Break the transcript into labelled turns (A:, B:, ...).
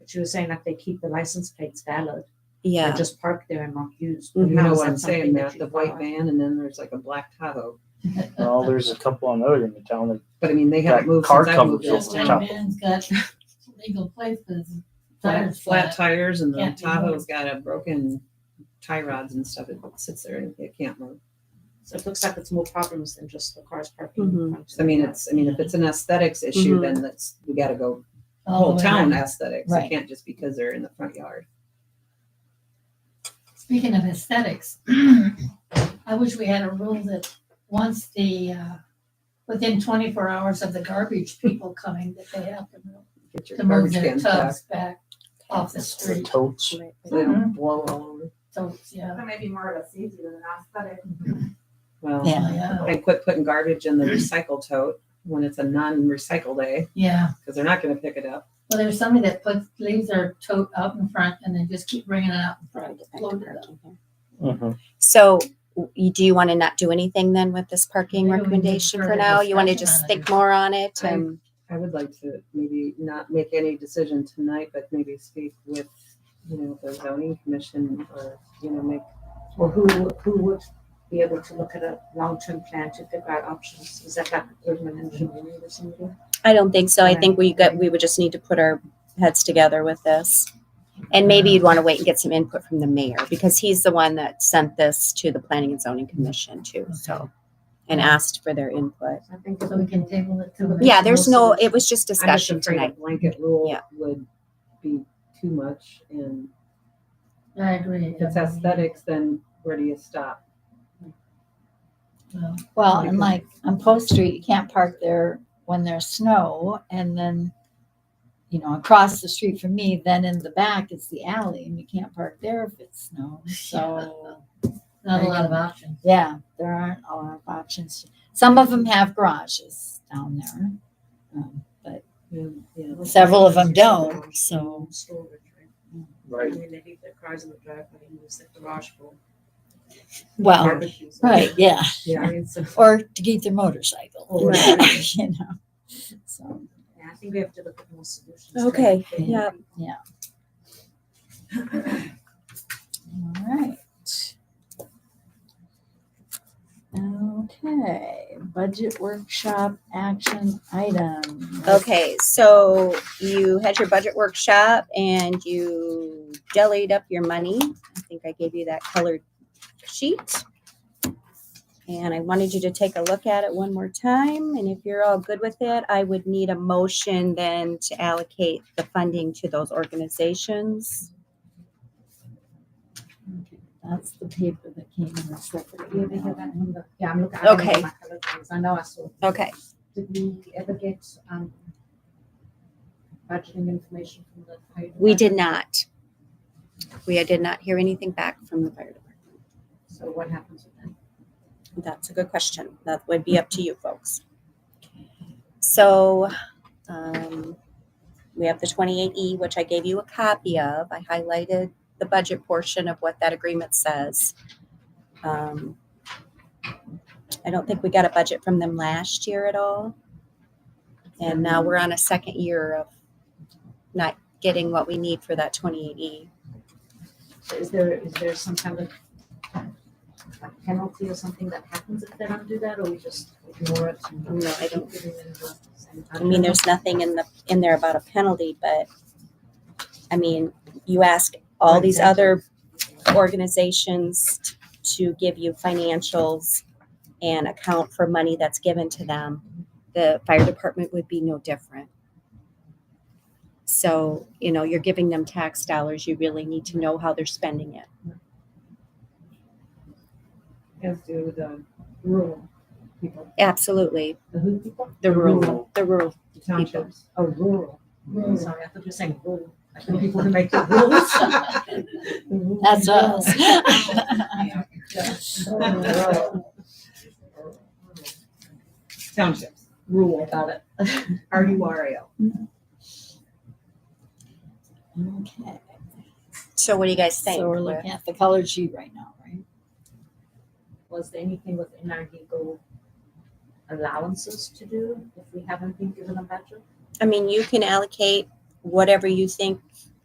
A: she was saying like they keep the license plates valid.
B: Yeah.
A: And just park there and not used.
C: Mm-hmm.
D: You
A: How
D: know
A: is
D: what
A: that
D: I'm saying,
A: something
D: Matt,
A: you
D: the white
A: got?
D: van and then there's like a black Tahoe.
E: Well, there's a couple on other in the town that
D: But I mean, they haven't
E: That
D: moved
E: car
D: since I moved.
E: covers
D: in.
E: Yes,
D: Flat-
C: Just
E: over top.
C: that man's got legal plates, but his
D: Flat,
C: tire's
D: flat tires and the
C: Can't be
D: Tahoe's
C: moved.
D: got a broken tie rods and stuff. It sits there and it can't move.
A: So it looks like it's more problems than just the cars parking.
B: Mhm.
A: in front of
D: So Mm-hmm. I mean,
A: the
D: it's, I mean, if it's an aesthetics issue,
B: Mhm.
D: then that's, we gotta go
C: Mm-hmm. all the
D: whole
C: way
D: town
C: around.
D: aesthetics. It
C: Right.
D: can't just because they're in the front yard.
C: Speaking of aesthetics, I wish we had a rule that once the, uh, within twenty-four hours of the garbage people coming, that they have to move,
D: Get your
C: to move
D: garbage
C: their
D: cans back.
C: tubs back off the
E: the
C: street.
E: totes.
D: So they
C: Mm-hmm.
D: don't blow all over.
C: So, yeah,
F: That may be more of a safety than an aesthetic.
D: Well,
C: yeah,
D: and quit putting garbage in the recycle tote when it's a non-recycle day,
C: yeah.
D: because they're not gonna pick it up.
C: Well, there's somebody that puts, leaves their tote out in front and they just keep bringing it out in front. Loaded up.
E: Mhm.
B: So w- you- do you want to not do anything then with this parking
C: Maybe we need
B: recommendation for
C: further
B: now? You want to
C: discussion
B: just
C: on
B: think
C: it.
B: more on it
D: I-
B: and
D: I would like to maybe not make any decision tonight, but maybe speak with, you know, the zoning commission or, you know, make,
A: house. Or who, who would be able to look at a long-term plan to figure out options? Is that like urban engineering or something?
B: I don't think so. I
A: Okay.
B: think we got, we would just need to put our heads together with this. And maybe you'd want to wait and get some input from the mayor because he's the one that sent this to the planning and zoning commission too, so. And asked for their input.
A: I think
C: So we can table it to. the
B: Yeah,
C: next
B: there's
C: meeting.
B: no, it was just
D: I'm just
B: discussion
D: afraid a
B: tonight.
D: blanket rule
B: Yeah.
D: would be too much and
C: I agree.
D: if it's aesthetics, then where do you stop?
C: Well,
G: Well,
D: Because-
G: and like on Post Street, you can't park there when there's snow and then, you know, across the street from me, then in the back is the alley and you can't park there if it's snow. So,
C: Not a lot of options.
G: yeah, there aren't a lot of options. Some of them have garages down there. um,
D: And, you know,
G: Several of them don't, so.
A: Storage, right?
E: Right.
A: And then they leave their cars in the driveway and use the garage for
G: Well,
A: barbecues.
G: right, yeah,
A: Yeah, I mean, so,
G: or to get their motorcycle,
A: Right.
G: you know. So,
A: yeah, I think we have to look at more solutions.
B: Okay,
A: Like,
B: yeah.
G: all right. Okay, budget workshop action item.
B: Okay, so you had your budget workshop and you jellied up your money. I think I gave you that colored sheet. And I wanted you to take a look at it one more time. And if you're all good with it, I would need a motion then to allocate the funding to those organizations.
G: That's the paper that came in the separate
A: Yeah, they have
G: email.
A: that on the- yeah, I'm looking. I don't know
B: Okay.
A: my colour things. I know I saw.
B: Okay,
A: Did we ever get, um, budgeting information from the? fire
B: we
A: department?
B: did not. We did not hear anything back from the fire department.
A: So what happens with that?
B: That's a good question. That would be up to you folks. So, um, we have the twenty-eight E, which I gave you a copy of. I highlighted the budget portion of what that agreement says. Um, I don't think we got a budget from them last year at all. And now we're on a second year of not getting what we need for that twenty-eight E.
A: So Is there, is there some kind of like penalty or something that happens if they don't do that, or we just ignore it?
B: No, I don't-
A: I
B: I mean, there's nothing in the, in there about a penalty, but, I mean, you ask all these other organizations t- to give you financials and account for money that's given to them, the fire department would be no different. So, you know, you're giving them tax dollars, you really need to know how they're spending it.
D: As do the rural people,
B: Absolutely,
D: the who people,
B: the
D: Rural.
B: rural, the rural,
D: the townships.
A: Oh, rural.
C: Rural.
A: Sorry, I thought you were saying rural. Like the people who make the rules. The rules.
G: That's us.
A: Rural.
D: Townships,
A: Rural, got it.
D: Oh, R U R A L.
G: Okay,
B: so what do you guys think?
G: so we're looking at the colored sheet right now, right?
A: Was there anything within our legal allowances to do if we haven't been given a budget?
B: I mean, you can allocate whatever you think